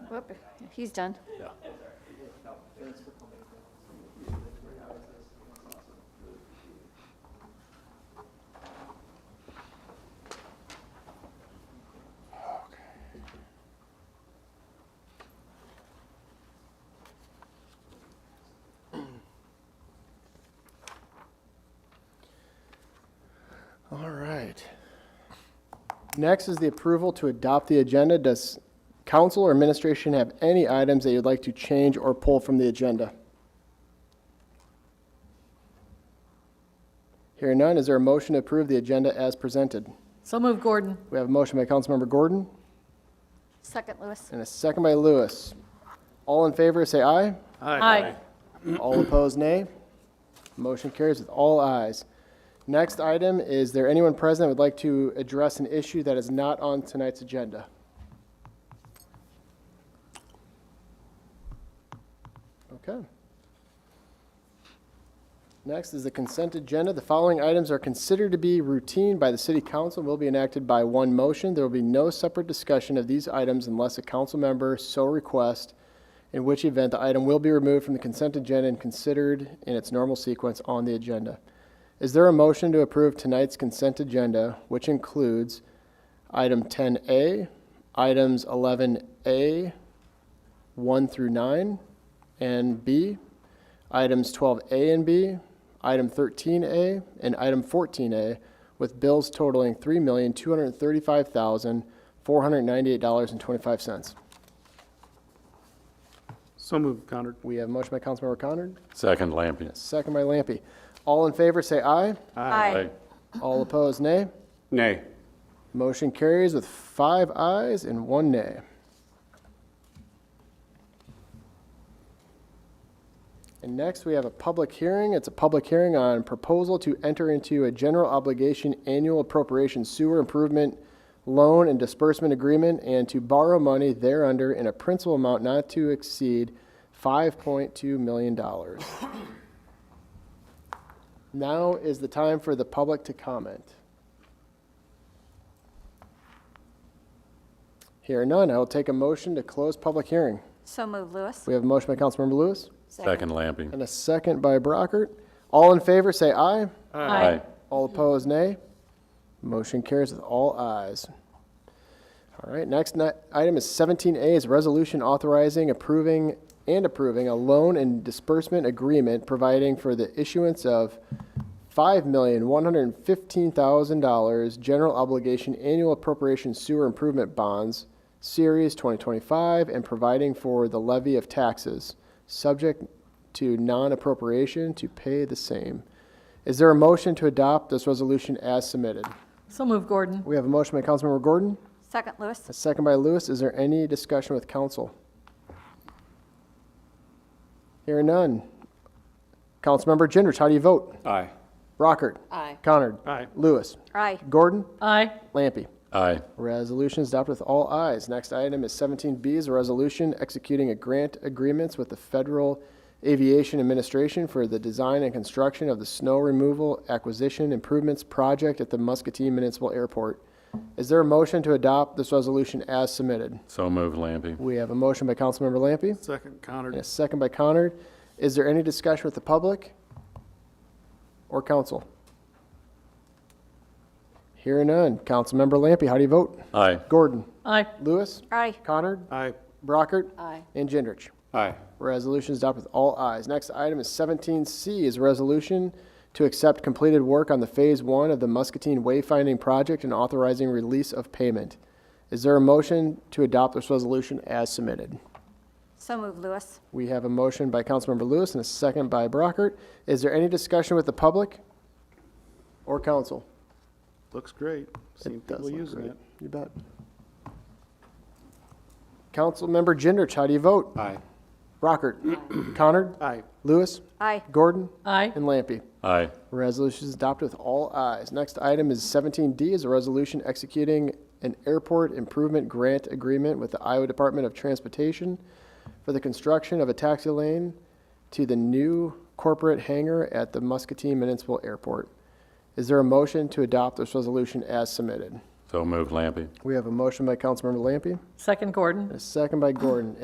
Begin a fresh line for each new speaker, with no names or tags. Whoop, he's done.
Yeah. All right. Next is the approval to adopt the agenda. Does council or administration have any items that you'd like to change or pull from the agenda? Hearing none, is there a motion to approve the agenda as presented?
So move, Gordon.
We have a motion by Councilmember Gordon
Second, Lewis.
and a second by Lewis. All in favor, say aye.
Aye.
All opposed, nay. Motion carries with all ayes. Next item, is there anyone present that would like to address an issue that is not on tonight's agenda? Okay. Next is the consent agenda. The following items are considered to be routine by the city council and will be enacted by one motion. There will be no separate discussion of these items unless a council member so requests, in which event the item will be removed from the consent agenda and considered in its normal sequence on the agenda. Is there a motion to approve tonight's consent agenda, which includes item 10A, items 11A, 1 through 9, and B, items 12A and B, item 13A, and item 14A, with bills totaling $3,235,498.25.
So moved, Connor.
We have a motion by Councilmember Conard,
Second, Lampion.
second by Lampy. All in favor, say aye.
Aye.
All opposed, nay.
Nay.
Motion carries with five ayes and one nay. And next, we have a public hearing. It's a public hearing on proposal to enter into a general obligation annual appropriation sewer improvement loan and disbursement agreement and to borrow money thereunder in a principal amount not to exceed $5.2 million. Now is the time for the public to comment. Hearing none, I will take a motion to close public hearing.
So moved, Lewis.
We have a motion by Councilmember Lewis
Second, Lampion.
and a second by Brockert. All in favor, say aye.
Aye.
All opposed, nay. Motion carries with all ayes. All right, next ni- item is 17A is resolution authorizing, approving, and approving a loan and disbursement agreement providing for the issuance of $5,115,000 general obligation annual appropriation sewer improvement bonds, Series 2025, and providing for the levy of taxes, subject to non-appropriation to pay the same. Is there a motion to adopt this resolution as submitted?
So move, Gordon.
We have a motion by Councilmember Gordon,
Second, Lewis.
a second by Lewis. Is there any discussion with council? Hearing none. Councilmember Gendrich, how do you vote?
Aye.
Rockert.
Aye.
Conard.
Aye.
Lewis.
Aye.
Gordon.
Aye.
Lampy.
Aye.
Resolution is adopted with all ayes. Next item is 17B is a resolution executing a grant agreements with the Federal Aviation Administration for the design and construction of the snow removal acquisition improvements project at the Muscatine Municipal Airport. Is there a motion to adopt this resolution as submitted?
So moved, Lampion.
We have a motion by Councilmember Lampy
Second, Connor.
and a second by Conard. Is there any discussion with the public or council? Hearing none. Councilmember Lampy, how do you vote?
Aye.
Gordon?
Aye.
Lewis?
Aye.
Connard?
Aye.
Brockert?
Aye.
And Gendrich.
Aye.
Resolution is adopted with all ayes. Next item is 17C is a resolution to accept completed work on the Phase 1 of the Muscatine Wayfinding Project and authorizing release of payment. Is there a motion to adopt this resolution as submitted?
So moved, Lewis.
We have a motion by Councilmember Lewis and a second by Brockert. Is there any discussion with the public or council?
Looks great. Seen
It does
people
look
using
great.
it.
You bet. Councilmember Gendrich, how do you vote?
Aye.
Brockert. Connard.
Aye.
Lewis.
Aye.
Gordon.
Aye.
And Lampy.
Aye.
Resolution is adopted with all ayes. Next item is 17D is a resolution executing an airport improvement grant agreement with the Iowa Department of Transportation for the construction of a taxi lane to the new corporate hangar at the Muscatine Municipal Airport. Is there a motion to adopt this resolution as submitted?
So moved, Lampion.
We have a motion by Councilmember Lampy
Second, Gordon.
and a second by Gordon.